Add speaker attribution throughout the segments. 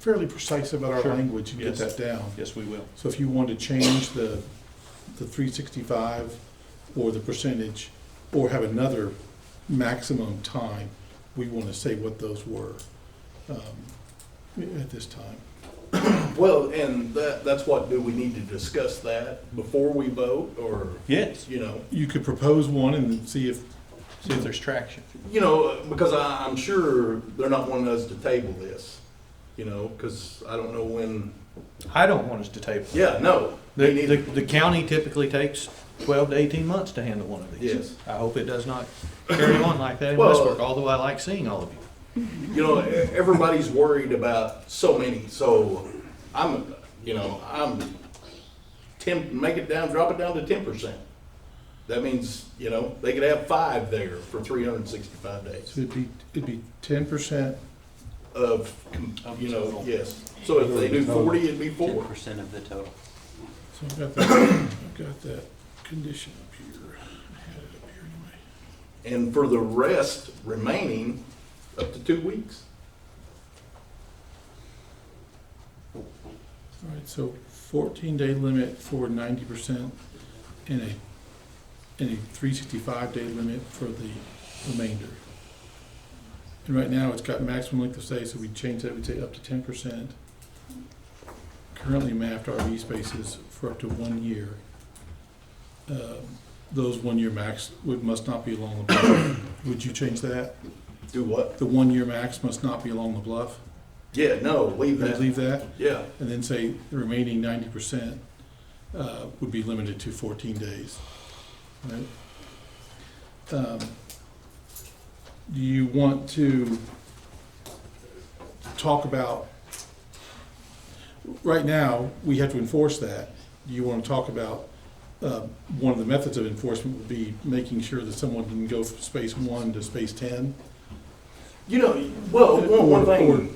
Speaker 1: fairly precise about our
Speaker 2: Sure.
Speaker 1: language and get
Speaker 2: Yes.
Speaker 1: that down.
Speaker 2: Yes, we will.
Speaker 1: So if you want to change the, the three sixty-five or the percentage, or have another maximum time, we want to say what those were, um, at this time.
Speaker 3: Well, and that, that's what, do we need to discuss that before we vote, or,
Speaker 2: Yes,
Speaker 3: you know?
Speaker 1: You could propose one and see if,
Speaker 2: see if there's traction.
Speaker 3: You know, because I, I'm sure they're not wanting us to table this, you know, because I don't know when,
Speaker 2: I don't want us to table. it.
Speaker 3: yeah, no.
Speaker 2: The,
Speaker 3: they
Speaker 2: the,
Speaker 3: need.
Speaker 2: the county typically takes twelve to eighteen months to handle one of these.
Speaker 3: Yes.
Speaker 2: I hope it does not carry on like that in
Speaker 3: Well-
Speaker 2: Westbrook, although I like seeing all of you.
Speaker 3: You know, e- everybody's worried about so many, so I'm, you know, I'm temp, make it down, drop it down to ten percent. That means, you know, they could have five there for three hundred and sixty-five days.
Speaker 1: it'd be, it'd be ten percent
Speaker 3: of, com- you know, yes. So if they do forty, it'd be
Speaker 4: Ten
Speaker 3: four.
Speaker 4: percent of the total.
Speaker 1: So I've got that, I've got that condition up here. I had it up here anyway.
Speaker 3: And for the rest remaining, up to two weeks.
Speaker 1: All right, so fourteen day limit for ninety percent and a, and a three sixty-five day limit for the remainder. And right now, it's got maximum length of stay, so we change that, we'd say up to ten percent. Currently mapped RV spaces for up to one year. Um, Those one-year max would, must not be along the bluff. Would you change that?
Speaker 3: Do what?
Speaker 1: The one-year max must not be along the bluff?
Speaker 3: Yeah, no, leave
Speaker 1: Would you
Speaker 3: that.
Speaker 1: leave that?
Speaker 3: Yeah,
Speaker 1: and then say the remaining ninety percent uh, would be limited to fourteen days, right? Um, Do you want to talk about, right now, we have to enforce that. Do you want to talk about, uh, one of the methods of enforcement would be making sure that someone can go from space one to space ten?
Speaker 3: you know, well, one, one thing,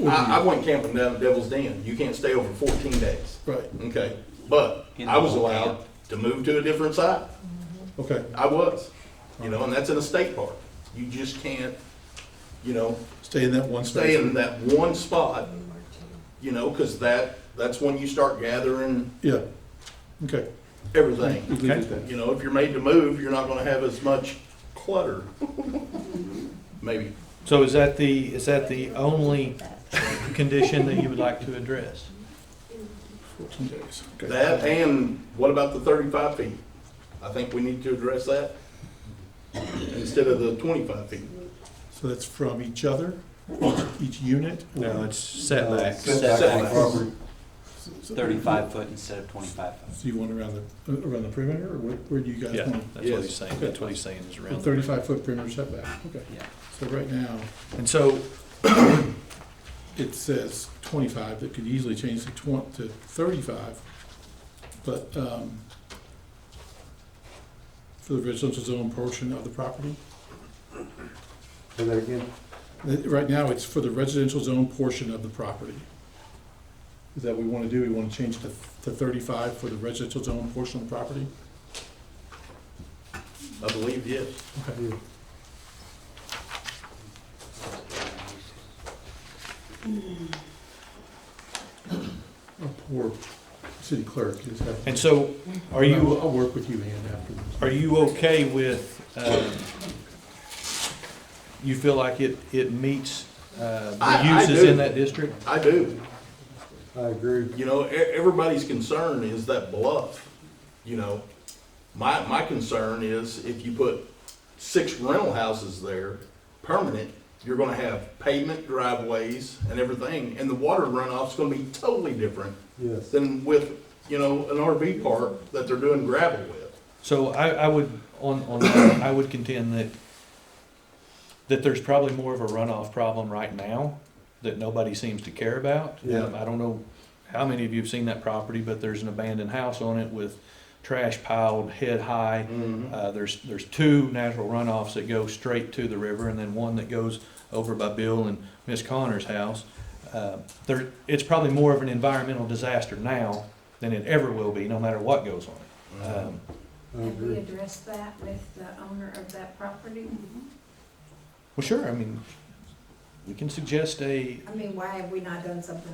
Speaker 1: Or-
Speaker 3: I, I went camping down at Devil's Den. You can't stay over fourteen days.
Speaker 1: Right,
Speaker 3: Okay, but I was allowed to move to a different site.
Speaker 1: okay.
Speaker 3: I was, you know, and that's in a state park. You just can't, you know,
Speaker 1: Stay in that one space.
Speaker 3: stay in that one spot, you know, because that, that's when you start gathering
Speaker 1: Yeah, okay. We
Speaker 3: everything.
Speaker 1: leave it at that.
Speaker 3: You know, if you're made to move, you're not gonna have as much clutter, maybe.
Speaker 2: So is that the, is that the only condition that you would like to address?
Speaker 1: 14 days. Okay.
Speaker 3: That, and what about the thirty-five feet? I think we need to address that instead of the twenty-five feet.
Speaker 1: So that's from each other, each, each unit? or-
Speaker 2: No, it's setbacks.
Speaker 4: Setbacks.
Speaker 3: Setbacks.
Speaker 1: So- so-
Speaker 4: Thirty-five foot instead of twenty-five foot.
Speaker 1: So you want around the, around the perimeter, or where, where do you guys
Speaker 2: Yeah,
Speaker 1: want?
Speaker 2: that's what he's saying, that's what he's saying is
Speaker 1: A
Speaker 2: around.
Speaker 1: thirty-five foot perimeter setback, okay.
Speaker 4: Yeah.
Speaker 1: So right now,
Speaker 2: And so,
Speaker 1: it says twenty-five, that could easily change to twen- to thirty-five. But, um, for the residential zone portion of the property,
Speaker 5: Say that again?
Speaker 1: Th- right now, it's for the residential zone portion of the property. Is that what we wanna do? We wanna change to, to thirty-five for the residential zone portion of the property?
Speaker 3: I believe, yes.
Speaker 5: Yeah.
Speaker 1: Our poor city clerk is having.
Speaker 2: and so, are you,
Speaker 1: I'll work with you, Ann, afterwards.
Speaker 2: Are you okay with, um, you feel like it, it meets uh,
Speaker 3: I- I
Speaker 2: the uses
Speaker 3: do.
Speaker 2: in that district?
Speaker 3: I do.
Speaker 5: I agree.
Speaker 3: You know, e- everybody's concern is that bluff, you know. My, my concern is if you put six rental houses there, permanent, you're gonna have pavement driveways and everything, and the water runoff's gonna be totally different
Speaker 5: Yes.
Speaker 3: than with, you know, an RV park that they're doing gravel with.
Speaker 2: So I, I would, on, on, that, I would contend that, that there's probably more of a runoff problem right now that nobody seems to care about.
Speaker 5: Yeah.
Speaker 2: Um, I don't know how many of you have seen that property, but there's an abandoned house on it with trash piled head high.
Speaker 5: Mm-hmm.
Speaker 2: Uh, there's, there's two natural runoffs that go straight to the river and then one that goes over by Bill and Miss Connor's house. Uh, There, it's probably more of an environmental disaster now than it ever will be, no matter what goes on.
Speaker 3: Uh-huh.
Speaker 2: Um,
Speaker 5: I
Speaker 6: Have we
Speaker 5: agree.
Speaker 6: addressed that with the owner of that property?
Speaker 2: Well, sure, I mean, we can suggest a,
Speaker 6: I mean, why have we not done something